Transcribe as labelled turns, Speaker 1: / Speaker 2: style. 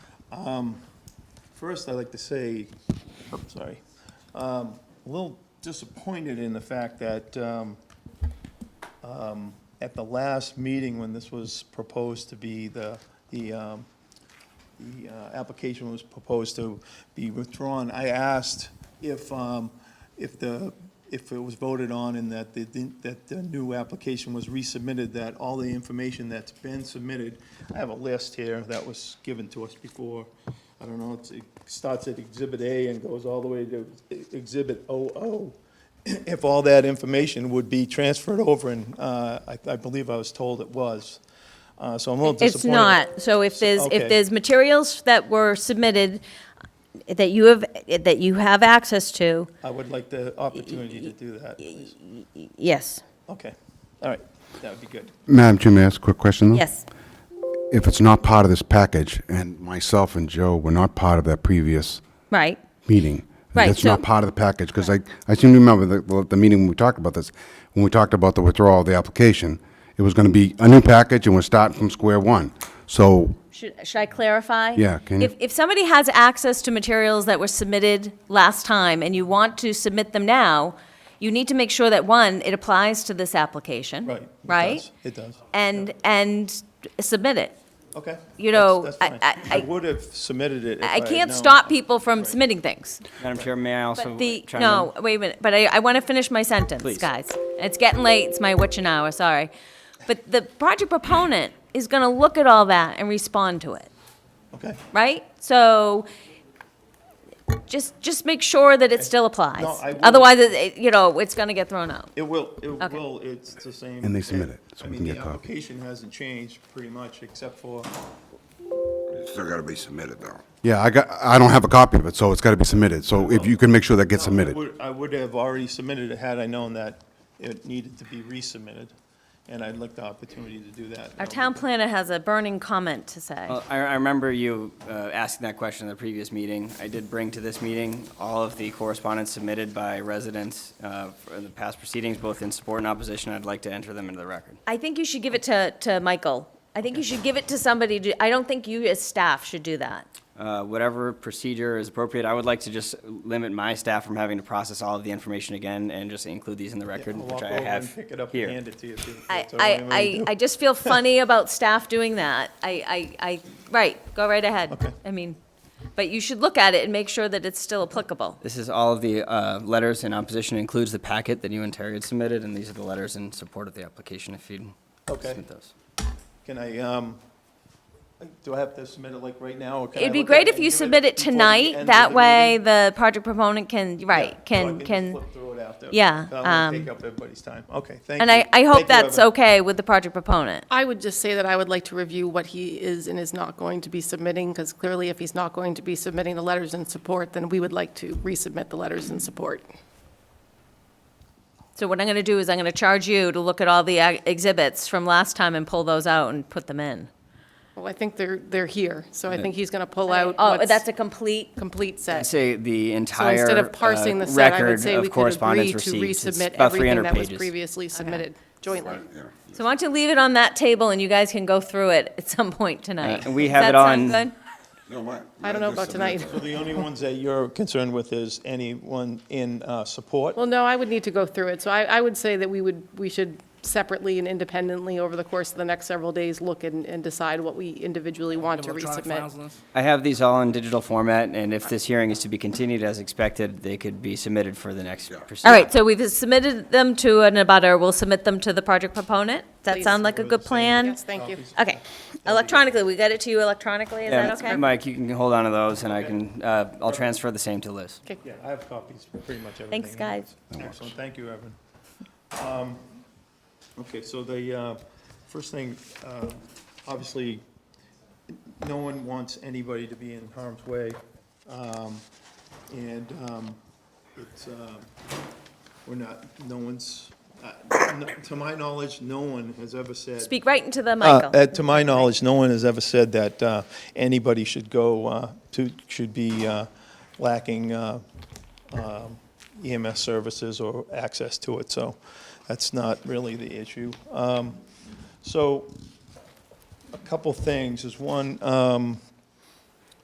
Speaker 1: First, I'd like to say, I'm sorry, um, a little disappointed in the fact that um, um, at the last meeting, when this was proposed to be the, the, um, the uh, application was proposed to be withdrawn, I asked if, um, if the, if it was voted on and that the, that the new application was resubmitted, that all the information that's been submitted, I have a list here that was given to us before, I don't know, it's- it starts at Exhibit A and goes all the way to Exhibit OO. If all that information would be transferred over, and uh, I I believe I was told it was. Uh, So I'm a little disappointed.
Speaker 2: It's not. So if there's,
Speaker 1: okay.
Speaker 2: if there's materials that were submitted that you have, that you have access to,
Speaker 1: I would like the opportunity to do that, please.
Speaker 2: yes,
Speaker 1: Okay, all right, that would be good.
Speaker 3: Madam Chair, may I ask a quick question? though?
Speaker 2: yes.
Speaker 3: If it's not part of this package, and myself and Joe were not part of that previous
Speaker 2: Right,
Speaker 3: meeting,
Speaker 2: Right,
Speaker 3: that's not
Speaker 2: so-
Speaker 3: part of the package, because I, I seem to remember the- the, the meeting when we talked about this, when we talked about the withdrawal of the application, it was going to be a new package, and we're starting from square one. So,
Speaker 2: Should, should I clarify?
Speaker 3: Yeah, can you-
Speaker 2: If, if somebody has access to materials that were submitted last time and you want to submit them now, you need to make sure that, one, it applies to this application.
Speaker 1: Right. it
Speaker 2: Right?
Speaker 1: does, It does.
Speaker 2: And, and submit it.
Speaker 1: Okay.
Speaker 2: you
Speaker 1: that's-
Speaker 2: know,
Speaker 1: that's
Speaker 2: I-
Speaker 1: fine.
Speaker 2: I-
Speaker 1: I would have submitted it if I
Speaker 2: I
Speaker 1: had
Speaker 2: can't
Speaker 1: known.
Speaker 2: stop people from submitting things.
Speaker 4: Madam Chair, may I also
Speaker 2: But the,
Speaker 4: chime in?
Speaker 2: no, wait a minute, but I, I want to finish my sentence,
Speaker 4: Please.
Speaker 2: guys. It's getting late, it's my witching hour, sorry. But the project proponent is going to look at all that and respond to it,
Speaker 1: Okay.
Speaker 2: right? So just, just make sure that it still applies.
Speaker 1: No, I will.
Speaker 2: Otherwise, it- it- you know, it's going to get thrown out.
Speaker 1: It will, it
Speaker 2: Okay.
Speaker 1: will, it's the same.
Speaker 3: And they submit it, so
Speaker 1: I
Speaker 3: we
Speaker 1: mean,
Speaker 3: can
Speaker 1: the
Speaker 3: get a copy.
Speaker 1: application hasn't changed pretty much, except for,
Speaker 5: Still gotta be submitted though.
Speaker 3: yeah, I got, I don't have a copy of it, so it's got to be submitted. So if you can make sure that gets
Speaker 1: I
Speaker 3: submitted.
Speaker 1: would, I would have already submitted it had I known that it needed to be resubmitted, and I'd like the opportunity to do that.
Speaker 2: Our town planner has a burning comment to say.
Speaker 4: Well, I, I remember you uh, asking that question in the previous meeting. I did bring to this meeting all of the correspondence submitted by residents uh, for the past proceedings, both in support and opposition. I'd like to enter them into the record.
Speaker 2: I think you should give it to, to Michael. I think you should give it to somebody, to- I don't think you as staff should do that.
Speaker 4: Uh, Whatever procedure is appropriate, I would like to just limit my staff from having to process all of the information again and just include these in the
Speaker 1: Yeah,
Speaker 4: record,
Speaker 1: I'll
Speaker 4: which
Speaker 1: walk
Speaker 4: I
Speaker 1: over and
Speaker 4: have
Speaker 1: Pick it up
Speaker 4: here.
Speaker 1: and hand it to you. if you-
Speaker 2: I,
Speaker 1: that's all right, I'm gonna
Speaker 2: I,
Speaker 1: do.
Speaker 2: I, I just feel funny about staff doing that. I, I, I, right, go right ahead.
Speaker 1: Okay.
Speaker 2: I mean, but you should look at it and make sure that it's still applicable.
Speaker 4: This is all of the uh, letters in opposition, includes the packet that you and Terry had submitted, and these are the letters in support of the application, if you'd
Speaker 1: Okay.
Speaker 4: submit those.
Speaker 1: Can I, um, do I have to submit it like right now, or can I
Speaker 2: It'd be
Speaker 1: look at
Speaker 2: great
Speaker 1: it
Speaker 2: if
Speaker 1: and
Speaker 2: you
Speaker 1: give
Speaker 2: submit it
Speaker 1: before the end
Speaker 2: tonight,
Speaker 1: of
Speaker 2: that
Speaker 1: the
Speaker 2: way
Speaker 1: meeting?
Speaker 2: the project proponent can,
Speaker 1: Yeah,
Speaker 2: right,
Speaker 1: so I
Speaker 2: can,
Speaker 1: just
Speaker 2: can,
Speaker 1: flip through it after.
Speaker 2: Yeah,
Speaker 1: 'Cause I don't
Speaker 2: um,
Speaker 1: wanna take up everybody's time. Okay, thank you.
Speaker 2: and I, I hope
Speaker 1: Thank you,
Speaker 2: that's
Speaker 1: Evan.
Speaker 2: okay with the project proponent.
Speaker 6: I would just say that I would like to review what he is and is not going to be submitting, because clearly if he's not going to be submitting the letters in support, then we would like to resubmit the letters in support.
Speaker 2: So what I'm gonna do is I'm gonna charge you to look at all the uh, exhibits from last time and pull those out and put them in.
Speaker 6: Well, I think they're, they're here, so I think he's going to pull out
Speaker 2: Oh,
Speaker 6: what's
Speaker 2: that's a complete
Speaker 6: complete
Speaker 4: I'd
Speaker 6: set.
Speaker 4: say the
Speaker 6: So
Speaker 4: entire
Speaker 6: instead
Speaker 4: uh,
Speaker 6: of parsing the set, I would
Speaker 4: record
Speaker 6: say we
Speaker 4: of
Speaker 6: could agree
Speaker 4: correspondence
Speaker 6: to
Speaker 4: received. It's
Speaker 6: resubmit
Speaker 4: about
Speaker 6: everything
Speaker 4: 300
Speaker 6: that was
Speaker 4: pages.
Speaker 6: previously submitted jointly.
Speaker 2: So why don't you leave it on that table and you guys can go through it at some point
Speaker 4: Uh,
Speaker 2: tonight?
Speaker 4: and we
Speaker 2: Does
Speaker 4: have
Speaker 2: that
Speaker 4: it
Speaker 2: sound
Speaker 4: on-
Speaker 2: good?
Speaker 5: No, what?
Speaker 6: I don't know about
Speaker 5: Just submit
Speaker 6: tonight.
Speaker 1: So the only ones that you're concerned with is anyone in uh, support?
Speaker 6: Well, no, I would need to go through it, so I, I would say that we would, we should separately and independently over the course of the next several days, look and, and decide what we individually want to
Speaker 7: Electronic files
Speaker 6: resubmit.
Speaker 7: list?
Speaker 4: I have these all in digital format, and if this hearing is to be continued as expected, they could be submitted for the next proceeding.
Speaker 2: All right, so we've submitted them to an abutter, we'll submit them to the project proponent. Does that
Speaker 6: Please.
Speaker 2: sound like a good plan?
Speaker 6: Yes, thank you.
Speaker 2: Okay, electronically, we got it to you electronically, is
Speaker 4: Yeah,
Speaker 2: that okay?
Speaker 4: Mike, you can hold on to those, and I can, uh, I'll transfer the same to Liz.
Speaker 1: Yeah, I have copies for pretty much everything.
Speaker 2: Thanks, guys.
Speaker 1: Excellent, thank you, Evan. Um, Okay, so the uh, first thing, uh, obviously, no one wants anybody to be in harm's way. Um, And um, it's, uh, we're not, no one's, uh, no- to my knowledge, no one has ever said.
Speaker 2: Speak right into the
Speaker 1: Uh,
Speaker 2: Michael.
Speaker 1: uh, To my knowledge, no one has ever said that uh, anybody should go, uh, to, should be uh, lacking uh, um, EMS services or access to it, so that's not really the issue. Um, So, a couple things, is one, um,